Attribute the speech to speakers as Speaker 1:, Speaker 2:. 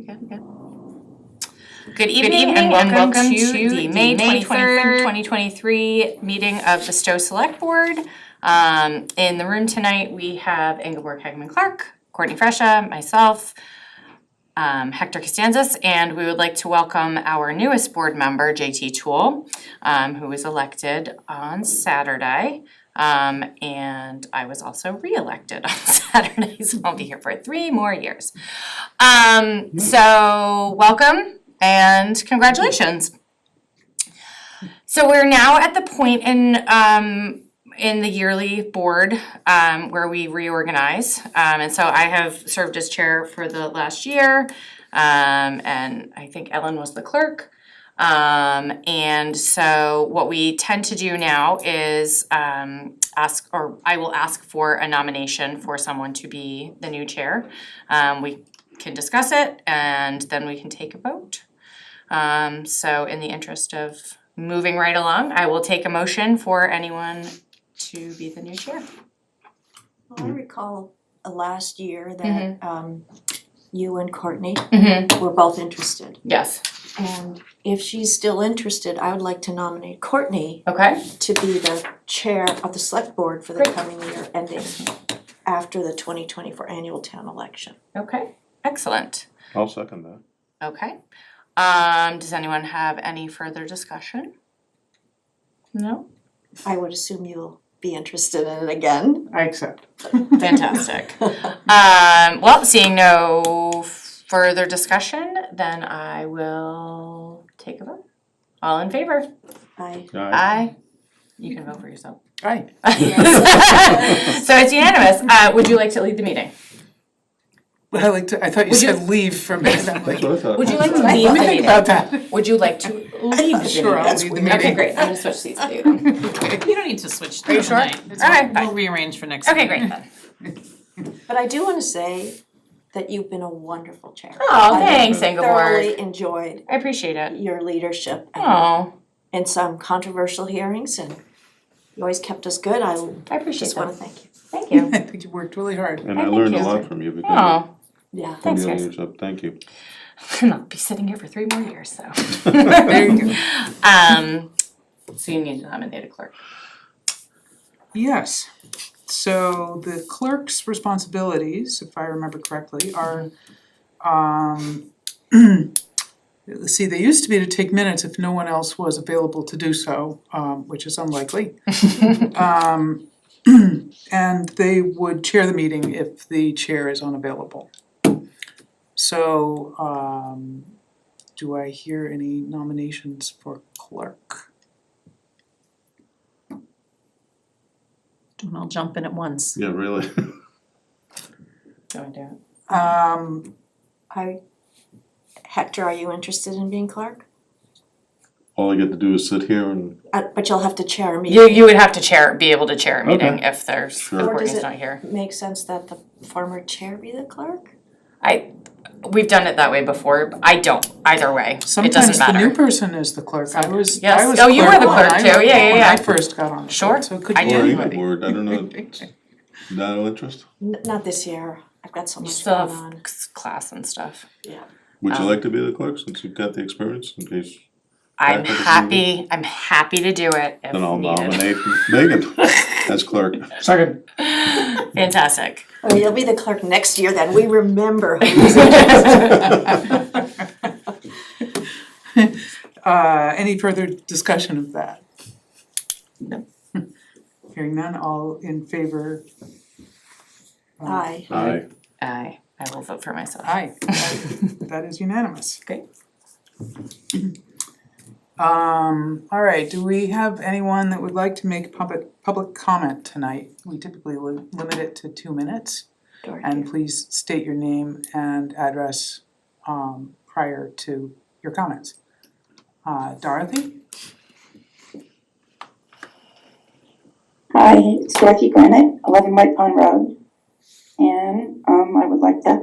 Speaker 1: Okay, okay.
Speaker 2: Good evening and welcome to the May twenty-third, twenty twenty-three meeting of the Stowe Select Board. Um, in the room tonight, we have Ingeborg Hagman Clark, Courtney Fresha, myself, um, Hector Costanzas, and we would like to welcome our newest board member, JT Toole, um, who was elected on Saturday. Um, and I was also re-elected on Saturday, so I'll be here for three more years. Um, so welcome and congratulations. So we're now at the point in um in the yearly board um where we reorganize. Um and so I have served as chair for the last year. Um and I think Ellen was the clerk. Um and so what we tend to do now is um ask or I will ask for a nomination for someone to be the new chair. Um we can discuss it and then we can take a vote. Um, so in the interest of moving right along, I will take a motion for anyone to be the new chair.
Speaker 3: Well, I recall uh, last year that um you and Courtney
Speaker 2: Mm-hmm.
Speaker 3: were both interested.
Speaker 2: Yes.
Speaker 3: And if she's still interested, I would like to nominate Courtney
Speaker 2: Okay.
Speaker 3: to be the chair of the select board for the
Speaker 2: Great.
Speaker 3: coming year ending after the twenty twenty four annual town election.
Speaker 2: Okay. Excellent.
Speaker 4: I'll second that.
Speaker 2: Okay. Um, does anyone have any further discussion? No?
Speaker 3: I would assume you'll be interested in it again.
Speaker 5: I accept.
Speaker 2: Fantastic. Um, well, seeing no further discussion, then I will take a vote. All in favor?
Speaker 3: I
Speaker 2: Aye. You can vote for yourself.
Speaker 5: Aye.
Speaker 2: So it's unanimous. Uh, would you like to lead the meeting?
Speaker 5: I like to, I thought you said leave for a minute, I'm like,
Speaker 4: That's what I thought.
Speaker 2: Would you like to
Speaker 5: let
Speaker 2: lead
Speaker 5: me
Speaker 2: the
Speaker 5: think
Speaker 2: meeting?
Speaker 5: about that.
Speaker 2: Would you like to lead the meeting?
Speaker 5: Sure, I'll lead the
Speaker 2: Okay,
Speaker 5: meeting.
Speaker 2: great. I'm gonna switch seats with you then.
Speaker 6: You don't need to switch
Speaker 5: Are you
Speaker 6: to
Speaker 5: sure?
Speaker 6: tonight. It's
Speaker 2: All right,
Speaker 6: fine.
Speaker 2: fine.
Speaker 6: We'll rearrange for next
Speaker 2: Okay,
Speaker 6: meeting.
Speaker 2: great then.
Speaker 3: but I do wanna say that you've been a wonderful chair.
Speaker 2: Oh, thanks, Ingeborg.
Speaker 3: Thoroughly enjoyed
Speaker 2: I appreciate it.
Speaker 3: your leadership and
Speaker 2: Oh,
Speaker 3: and some controversial hearings and you always kept us good. I
Speaker 2: I appreciate
Speaker 3: just want to
Speaker 2: that.
Speaker 3: thank you.
Speaker 2: Thank you.
Speaker 5: I think you worked really hard.
Speaker 4: And
Speaker 2: I
Speaker 4: I
Speaker 2: think
Speaker 4: learned a
Speaker 2: you-
Speaker 4: lot from you because
Speaker 2: Oh,
Speaker 3: Yeah.
Speaker 4: of
Speaker 2: thanks
Speaker 4: your
Speaker 2: guys.
Speaker 4: leadership, thank you.
Speaker 2: And I'll be sitting here for three more years, so.
Speaker 5: There you go.
Speaker 2: Um, so you need to nominate a clerk.
Speaker 5: Yes. So the clerk's responsibilities, if I remember correctly, are, um, let's see, they used to be to take minutes if no one else was available to do so, um, which is unlikely. Um, and they would chair the meeting if the chair is unavailable. So, um, do I hear any nominations for clerk?
Speaker 6: I'll jump in at once.
Speaker 4: Yeah, really.
Speaker 2: Do I do it?
Speaker 5: Um,
Speaker 3: I Hector, are you interested in being clerk?
Speaker 4: All I get to do is sit here and,
Speaker 3: Uh, but you'll have to chair a meeting.
Speaker 2: You, you would have to chair, be able to chair a meeting
Speaker 4: Okay.
Speaker 2: if there's,
Speaker 4: Sure.
Speaker 2: if
Speaker 3: Or does
Speaker 2: Courtney's
Speaker 3: it-
Speaker 2: not here.
Speaker 3: Makes sense that the former chair be the clerk?
Speaker 2: We've done it that way before. I don't, either way. It
Speaker 5: Sometimes
Speaker 2: doesn't
Speaker 5: the new
Speaker 2: matter.
Speaker 5: person is the clerk, I was,
Speaker 2: Yes.
Speaker 5: I was
Speaker 2: Oh, you were the
Speaker 5: when
Speaker 2: clerk
Speaker 5: I-
Speaker 2: too. Yeah, yeah,
Speaker 5: when
Speaker 2: yeah.
Speaker 5: I first got on the
Speaker 2: Sure.
Speaker 5: board, so it could
Speaker 2: I
Speaker 5: be
Speaker 2: do.
Speaker 4: or
Speaker 5: anybody.
Speaker 4: even word, I don't know, it's not of interest.
Speaker 3: N- not this year. I've got so
Speaker 2: You
Speaker 3: much
Speaker 2: still
Speaker 3: going
Speaker 2: have
Speaker 3: on.
Speaker 2: c- class and stuff.
Speaker 4: Would you
Speaker 2: Um,
Speaker 4: like to be the clerk since you've got the experience in case,
Speaker 2: I'm
Speaker 4: Back with the
Speaker 2: happy, I'm happy to do it if
Speaker 4: then I'll
Speaker 2: needed.
Speaker 4: nominate Megan as clerk.
Speaker 5: Second.
Speaker 2: Fantastic.
Speaker 3: Oh, you'll be the clerk next year then. We remember who was
Speaker 5: Uh, any further discussion of that?
Speaker 2: No.
Speaker 5: Hearing none, all in favor? Um,
Speaker 3: I.
Speaker 4: Aye.
Speaker 2: I, I will vote for myself.
Speaker 5: Aye, that that is unanimous.
Speaker 2: Great.
Speaker 5: Um, all right, do we have anyone that would like to make public, public comment tonight? We typically li- limit it to two minutes. And please state your name and address um prior to your comments. Uh Dorothy?
Speaker 7: Hi, it's Dorothy Granite, eleven White Pond Road. And um I would like to